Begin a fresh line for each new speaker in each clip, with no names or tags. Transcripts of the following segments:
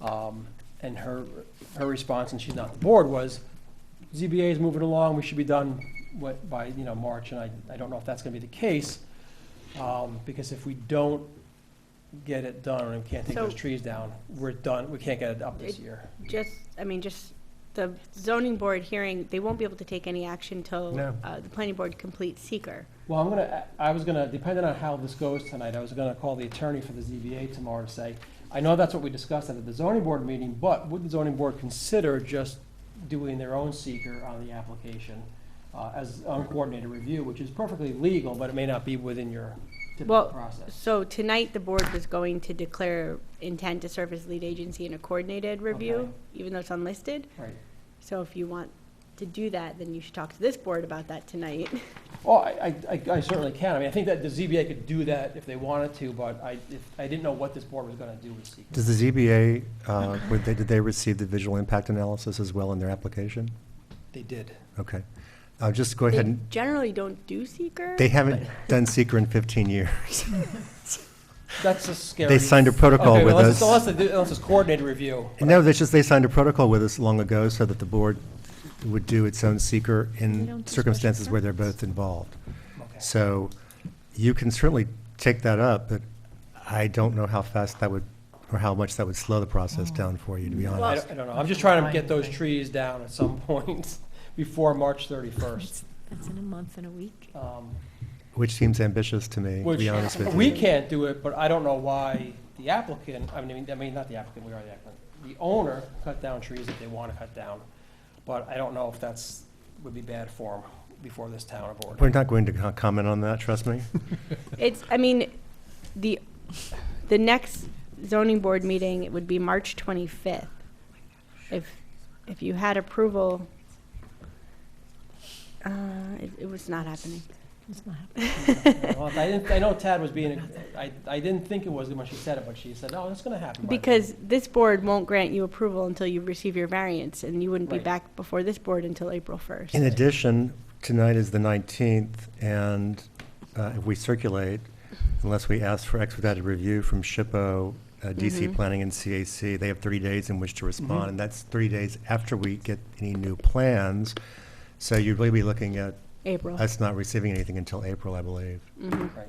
Um, And her, her response, and she's not the board, was ZBA is moving along, we should be done what, by, you know, March, and I, I don't know if that's gonna be the case. um, Because if we don't get it done, and we can't take those
So-
trees down, we're done, we can't get it up this year.
Just, I mean, just the zoning board hearing, they won't be able to take any action till
No.
uh, the planning board completes seeker.
Well, I'm gonna, I was gonna, depending on how this goes tonight, I was gonna call the attorney for the ZBA tomorrow to say, I know that's what we discussed at the zoning board meeting, but would the zoning board consider just doing their own seeker on the application uh, as uncoordinated review, which is perfectly legal, but it may not be within your typical
Well,
process?
So tonight, the board was going to declare intent to serve as lead agency in a coordinated
Okay.
review, even though it's unlisted.
Right.
So if you want to do that, then you should talk to this board about that tonight.
Well, I, I I certainly can. I mean, I think that the ZBA could do that if they wanted to, but I, if- I didn't know what this board was gonna do with seeker.
Does the ZBA, uh, would they- did they receive the visual impact analysis as well in their application?
They did.
Okay. Uh, Just go ahead,
They
and-
generally don't do seeker.
they haven't done seeker in 15 years.
That's a scary.
They signed a protocol
Okay,
with
unless it's- Unless,
us.
they do- unless it's coordinated review.
No, that's just, they signed a protocol with us long ago so that the board would do its own seeker
They don't do
in
special
circumstances where they're both involved.
Okay.
So you can certainly take that up, but I don't know how fast that would, or how much that would slow the
Oh.
process down for you, to be
I
honest.
don't, I don't know, I'm just trying to get those trees down at some point before March thirty-first. Um,
That's that's in a month and a week.
Which seems ambitious to me, to
Which,
be honest with you.
we can't do it, but I don't know why the applicant, I mean, I mean, not the applicant, we are the applicant, the owner cut down trees that they want to cut down, but I don't know if that's, would be bad form before this town
We're
board.
not going to co- comment on that, trust me.
It's, I mean, the, the next zoning board meeting it would be March 25th. If, if you had approval, uh, it, it was not happening.
It's not happening.
Well, I didn't, I know Tad was being, I, I didn't think it was when she said it, but she said, oh, that's gonna happen. by the way."
Because this board won't grant you approval until you receive your variance, and you wouldn't be
Right.
back before this board until April 1st.
In addition, tonight is the 19th, and uh, if we circulate, unless we ask for expedited review from SHPO, uh, DC
Mm-hmm.
Mhm.
Planning, and CAC, they have 30 days in which to
Mhm.
respond, and that's three days after we get any new plans. So you'd really be looking at
April.
us not receiving anything until April, I believe.
Mhm.
Right.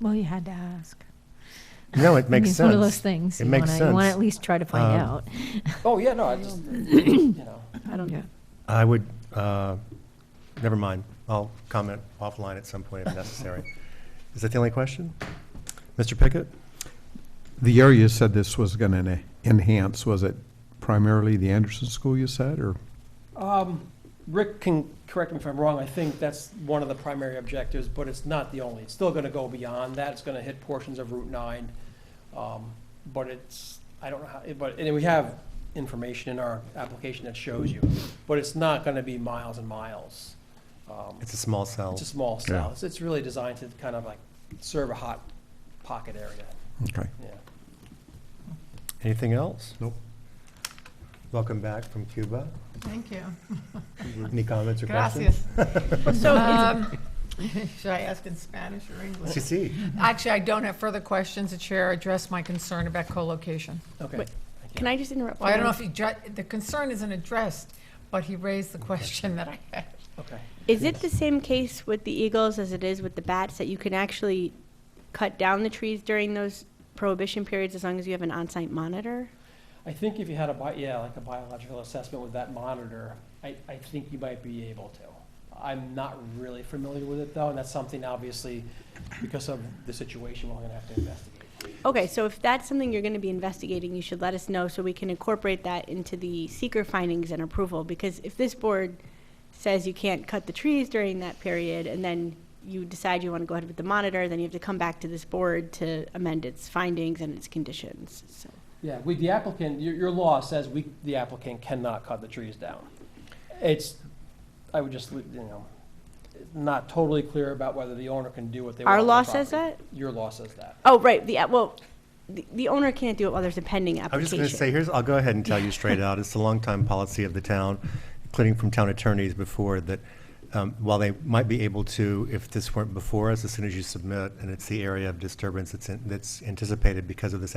Well, you had to ask.
No, it
I mean,
makes
It's one of those
sense.
things.
It
you
makes
wanna- You want to
sense.
at least try to find
Um,
out.
Oh, yeah, no, I just, you know.
I don't,
Yeah.
I would, uh, never mind, I'll comment offline at some point if necessary. Is that the only question? Mr. Pickett?
The area you said this was going to enhance, was it primarily the Anderson School you said, or?
Um, Rick can correct me if I'm wrong, I think that's one of the primary objectives, but it's not the only. It's still gonna go beyond that, it's gonna hit portions of Route nine. Um, But it's, I don't know how, but, and we have information in our application that shows you, but it's not gonna be miles and miles. Um,
It's a small cell.
It's a small
Yeah.
cell, It's- it's really designed to kind of like serve a hot pocket area,
Okay.
yeah.
Anything else?
Nope.
Welcome back from Cuba.
Thank you.
Any comments or questions?
Gracias.
Uh,
Um, Should I ask in Spanish or
Si,
English?
si.
Actually, I don't have further questions. The chair addressed my concern about co-location.
Okay.
Wait, can I just interrupt?
Well, I don't know
one?
if he, dre- the concern isn't addressed, but he raised the question that I had.
Okay.
Is it the same case with the eagles as it is with the bats, that you can actually cut down the trees during those prohibition periods as long as you have an on-site monitor?
I think if you had a, bi- yeah, like a biological assessment with that monitor, I, I think you might be able to. I'm not really familiar with it though, and that's something obviously, because of the situation, we're gonna have to investigate.
Okay, so if that's something you're gonna be investigating, you should let us know so we can incorporate that into the seeker findings and approval, because if this board says you can't cut the trees during that period, and then you decide you wanna go ahead with the monitor, then you have to come back to this board to amend its findings and its conditions, so.
Yeah, we, the applicant, your, your law says we, the applicant cannot cut the trees down. It's, I would just, leave, you know, not totally clear about whether the owner can do what they want.
Our
on the
law says
property.
that?
Your law says that.
Oh, right, the, well, the, the owner can't do it while there's a pending application.
I was just going to say, here's, I'll go ahead and tell you straight out, it's a longtime policy of the town, including from town attorneys before, that um, while they might be able to, if this weren't before us, as soon as you submit, and it's the area of disturbance that's, in- that's anticipated because of this